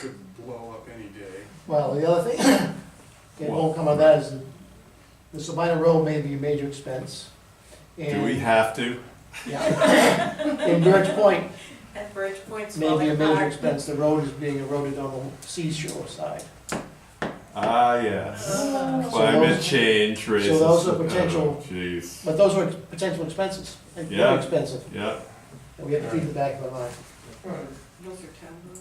could blow up any day. Well, the other thing, that won't come out of that is, that the Sabina Road may be a major expense. Do we and- have to? Yeah. And Birch Point At Bridge Point's may be a falling major apart. expense, the road is being eroded on the seashore side. Ah, yes. So Climate those- change raises. those are the- potential- oh, Jeez, But those are potential expenses, like, Yeah. very expensive, yeah, and we have to keep the back of our mind, Those are town roads.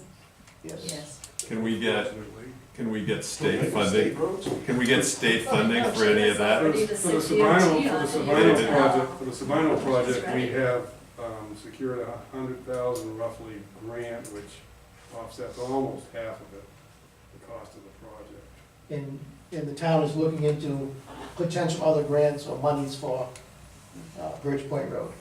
yes. Yes. Can we get- Absolutely. can we get state State funding, roads? can we get state funding for any of For that? the the for the city Sabino, DOT for the on the Sabino other project, side. for the Sabino project, we Right. have um, secured a hundred thousand roughly grant, which offsets almost half of it, the cost of the project. And, and the town is looking into potential other grants or monies for, uh, Birch Point Road.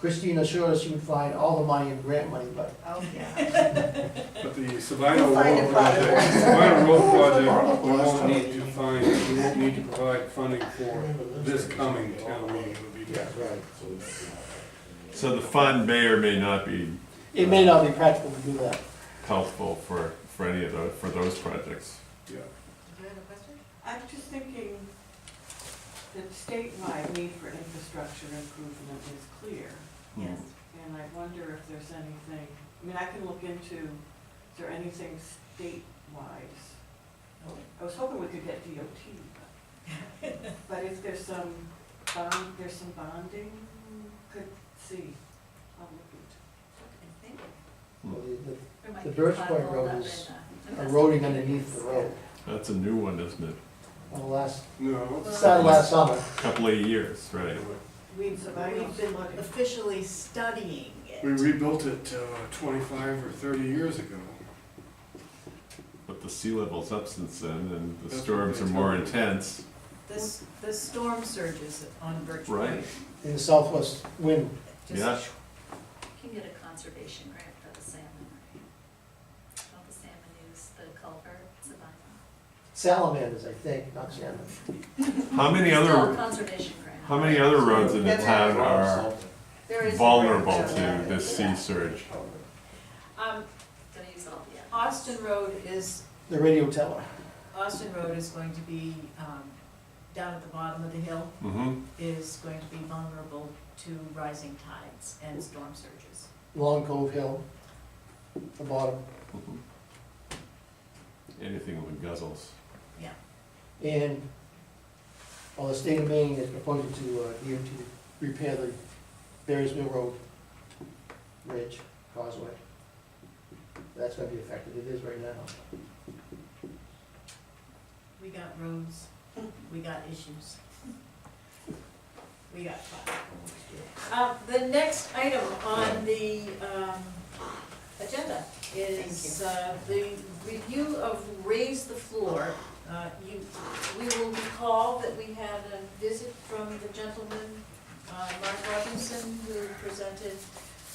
Christina assured us she would find all the money in grant money, but Oh, yeah. But the Sabino We'll find Road it, Father. project, Sabino Road project, we won't need to find, we won't need to provide funding for this coming town meeting. It would be next. So the fund may or may not be it may not be practical to do that. helpful for, for any of those, for those projects. Yeah. Do you have a question? I'm just thinking that statewide need for infrastructure improvement is clear. Yes. And I wonder if there's anything, I mean, I can look into, is there anything statewide? I was hoping we could get DOT, but, but if there's some bond, there's some bonding, could see, I'll look into. The Birch Point Road is uh, eroding underneath the road. That's a new one, isn't it? Well, last, No. started last summer, Couple of years, right? We've, we've been looking. officially studying it. Mm. We rebuilt it uh, twenty-five or thirty years ago. But the sea level's up since then, and the That's what storms they are more told me. intense. This, the storm surges on Birch Right. Point. in the southwest wind, Just- Yeah. You can get a conservation grant for the salmon, right? Don't the salmon use the culvert, it's a bylaw. salamanders, I think, not salmon. How many It's called a other, conservation grant. how many other roads in the That's town are There is a- vulnerable to this sea surge? Um, Don't use all the others. Austin Road is, The radio tower, Austin Road is going to be, um, down at the bottom of the hill, Mm-hmm, is going to be vulnerable to rising tides and storm surges. Long Cove Hill, the bottom, Mm-hmm. anything with guzzles. and, well, the state of Maine is proposing to, uh, DOT repair the Barry's Mill Road Bridge Causeway. That's gonna be affected, it is right now. We got roads, we got issues. We got fire. Uh, the next item on the, um, agenda is, uh, the review of raise the floor. Uh, you, we will recall that we had a visit from the gentleman, uh, Mark Robinson, who presented,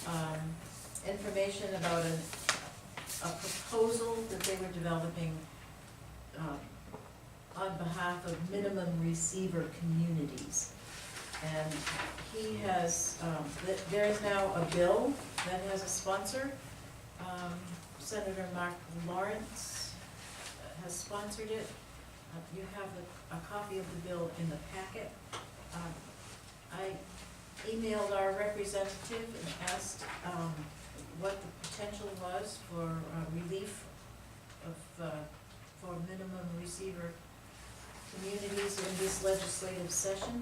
um, information about an, a proposal that they were developing, um, on behalf of minimum receiver communities. And he has, um, th- there is now a bill that has a sponsor. Um, Senator Mark Lawrence has sponsored it. Uh, You have a, a copy of the bill in the packet. Um, I emailed our representative and asked, um, what the potential was for uh, relief of, uh, for minimum receiver communities in this legislative session,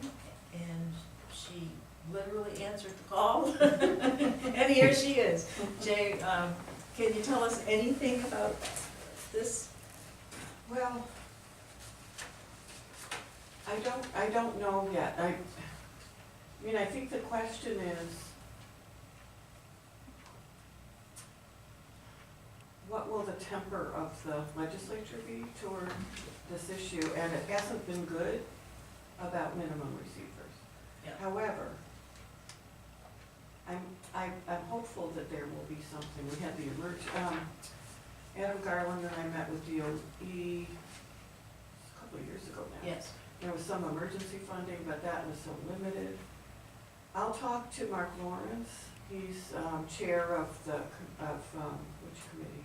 and she literally answered the call. And here she is. Jay, um, can you tell us anything about this? Well, I don't, I don't know yet. I, I mean, I think the question is, what will the temper of the legislature be toward this issue? And it hasn't been good about minimum Yeah. receivers. However, I'm, I'm, I'm hopeful that there will be something. We had the emerg, um, Adam Garland and I met with DOE a couple of years ago now. Yes. There was some emergency funding, but that was so limited. I'll talk to Mark Lawrence, he's um, chair of the, co- of, um, which committee?